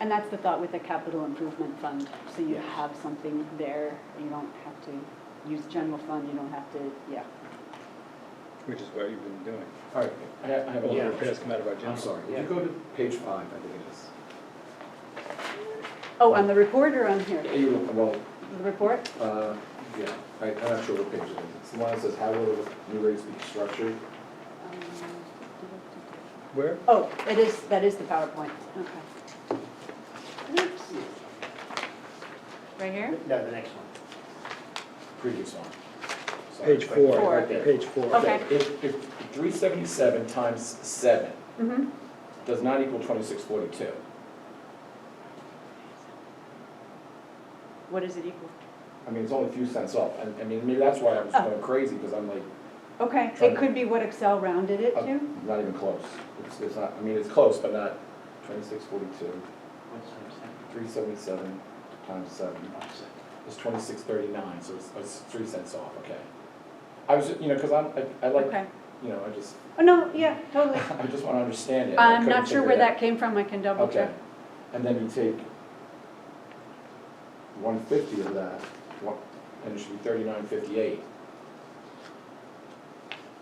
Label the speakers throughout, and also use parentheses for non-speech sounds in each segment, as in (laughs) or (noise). Speaker 1: And that's the thought with the capital improvement fund, so you
Speaker 2: Yes.
Speaker 1: have something there, you don't have to use general fund, you don't have to, yeah.
Speaker 3: Which is what you've been doing.
Speaker 2: All right,
Speaker 3: I have, I have a lot
Speaker 2: Yeah.
Speaker 3: of repairs come out of our
Speaker 2: I'm
Speaker 3: general.
Speaker 2: sorry, would you
Speaker 1: Yeah.
Speaker 2: go to page five, I think it is?
Speaker 1: Oh, on the report or on here?
Speaker 2: Yeah, You, well,
Speaker 1: The report?
Speaker 2: uh, yeah, I, I'm not sure what page it is, it's the one that says, how will the new rates be structured?
Speaker 1: Um,
Speaker 3: Where?
Speaker 1: Oh, it is, that is the PowerPoint, okay. Oops. Right here?
Speaker 4: No, the next one.
Speaker 2: Previous one. Sorry,
Speaker 3: Page
Speaker 2: it's like-
Speaker 3: four,
Speaker 2: right there.
Speaker 3: page four.
Speaker 1: Okay.
Speaker 2: If, if three seventy-seven times seven
Speaker 1: Mm-hmm.
Speaker 2: does not equal twenty-six forty-two,
Speaker 1: What does it equal?
Speaker 2: I mean, it's only a few cents off, and, I mean, maybe that's why I was
Speaker 1: Oh.
Speaker 2: going crazy, because I'm like,
Speaker 1: Okay,
Speaker 2: Try
Speaker 1: it
Speaker 2: to-
Speaker 1: could be what Excel rounded it to.
Speaker 2: I'm not even close. It's, it's not, I mean, it's close, but not twenty-six forty-two,
Speaker 4: What's the second?
Speaker 2: three seventy-seven times seven. It's twenty-six thirty-nine, so it's, it's three cents off, okay. I was, you know, because I'm, I, I like,
Speaker 1: Okay.
Speaker 2: you know, I just, (laughs)
Speaker 1: Oh, no, yeah, totally.
Speaker 2: I just want to understand it. and I
Speaker 1: I'm
Speaker 2: couldn't
Speaker 1: not sure
Speaker 2: figure
Speaker 1: where
Speaker 2: it
Speaker 1: that came from, I can
Speaker 2: out.
Speaker 1: double
Speaker 2: Okay,
Speaker 1: check.
Speaker 2: and then you take one fifty of that, one, and it should be thirty-nine fifty-eight.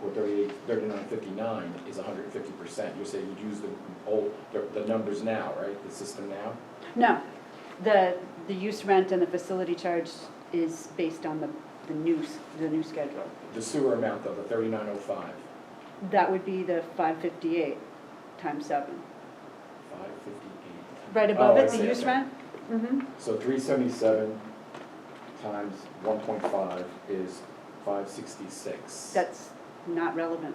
Speaker 2: Or thirty-eight, thirty-nine fifty-nine is hundred and fifty percent. You're saying you'd use the old, the, the numbers now, right, the system now?
Speaker 1: No, the, the use rent and the facility charge is based on the, the new, s- the new schedule.
Speaker 2: The sewer amount though, the thirty-nine oh five,
Speaker 1: That would be the five fifty-eight times seven.
Speaker 2: five fifty-eight.
Speaker 1: Right above it, the use rent? Mm-hmm,
Speaker 2: So three seventy-seven times one point five is five sixty-six.
Speaker 1: that's not relevant.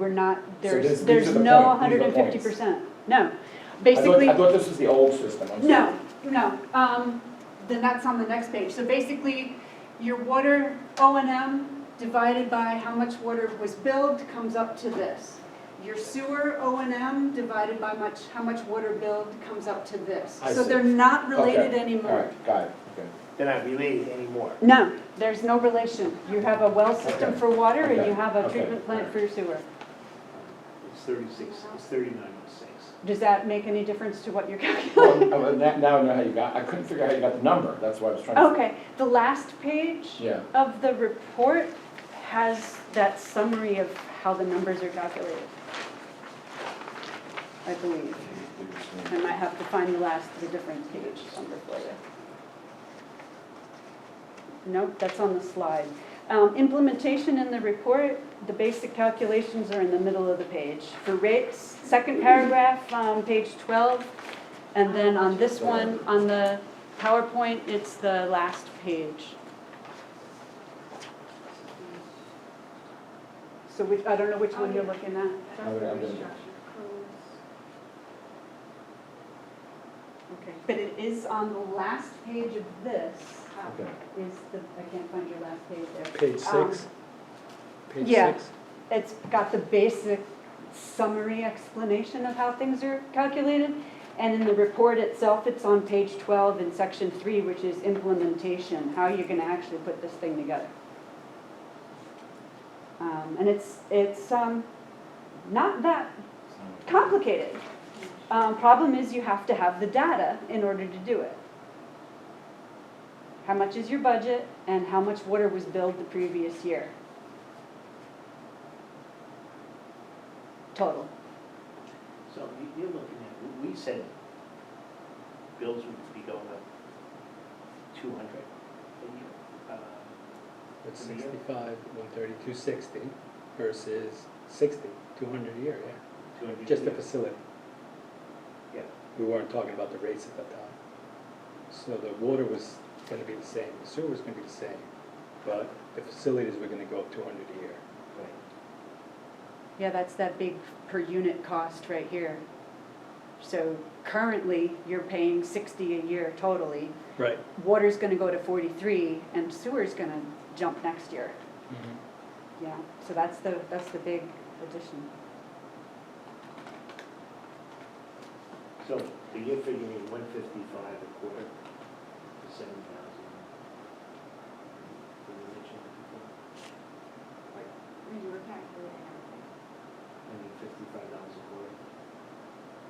Speaker 1: We're not,
Speaker 2: this-
Speaker 1: there's,
Speaker 2: these
Speaker 1: there's
Speaker 2: are the
Speaker 1: no
Speaker 2: point- these
Speaker 1: hundred
Speaker 2: are
Speaker 1: and
Speaker 2: the
Speaker 1: fifty
Speaker 2: points.
Speaker 1: percent, no.
Speaker 2: I thought-
Speaker 1: Basically,
Speaker 2: I thought this was the old system, I'm sorry.
Speaker 1: No, no, um, then that's on the next page, so basically, your water O and M divided by how much water was billed comes up to this. Your sewer O and M divided by much, how much water billed comes up to this,
Speaker 2: I
Speaker 1: so
Speaker 2: see.
Speaker 1: they're not related
Speaker 2: Okay, All
Speaker 1: anymore.
Speaker 2: right, got it, okay.
Speaker 4: They're not related anymore.
Speaker 1: No, there's no relation, you have a well system
Speaker 2: Okay,
Speaker 1: for water and
Speaker 2: okay,
Speaker 1: you have a
Speaker 2: okay,
Speaker 1: treatment plant
Speaker 2: alright.
Speaker 1: for your sewer.
Speaker 4: It's thirty-six, it's thirty-nine oh six.
Speaker 1: Does that make any difference to what you're (laughs)
Speaker 2: Well,
Speaker 1: calculating?
Speaker 2: I- I- now now I know how you got, I couldn't figure out how you got the number, that's why I was trying to.
Speaker 1: Okay, the last page.
Speaker 2: Yeah,
Speaker 1: of the report has that summary of how the numbers are calculated. I believe. I might have to find the last, the difference page number for you. Nope, that's on the slide. Um, Implementation in the report, the basic calculations are in the middle of the page. For rates, second paragraph, um, page 12. And then on this one, on the PowerPoint, it's the last page. So which, I don't know which one you're looking at.
Speaker 2: I would- I would-
Speaker 1: Okay. But it is on the last page of this, Uh,
Speaker 2: okay.
Speaker 1: is the, I can't find your last page there.
Speaker 3: Page
Speaker 1: Um,
Speaker 3: six? Page
Speaker 1: yeah.
Speaker 3: six?
Speaker 1: It's got the basic summary explanation of how things are calculated. And in the report itself, it's on page 12 in section three, which is implementation, how you're gonna actually put this thing together. Um, And it's, it's um, not that complicated. Um, Problem is you have to have the data in order to do it. How much is your budget and how much water was billed the previous year? Total.
Speaker 4: So you- you're looking at, we said bills would be going up two hundred. uh,
Speaker 3: That's
Speaker 4: Yeah.
Speaker 3: sixty-five, one thirty, two sixty versus sixty, two hundred a year, yeah. Just the facility.
Speaker 4: Yeah.
Speaker 3: We weren't talking about the rates at that time. So the water was gonna be the same, the sewer was gonna be the same, but the facilities were gonna go up two hundred a year.
Speaker 1: Yeah, that's that big per unit cost right here. So currently, you're paying 60 a year totally.
Speaker 3: Right.
Speaker 1: Water's gonna go to 43 and sewer's gonna jump next year.
Speaker 3: Mm-hmm.
Speaker 1: Yeah, so that's the, that's the big addition.
Speaker 4: So you're figuring one fifty-five a quarter, for seven thousand.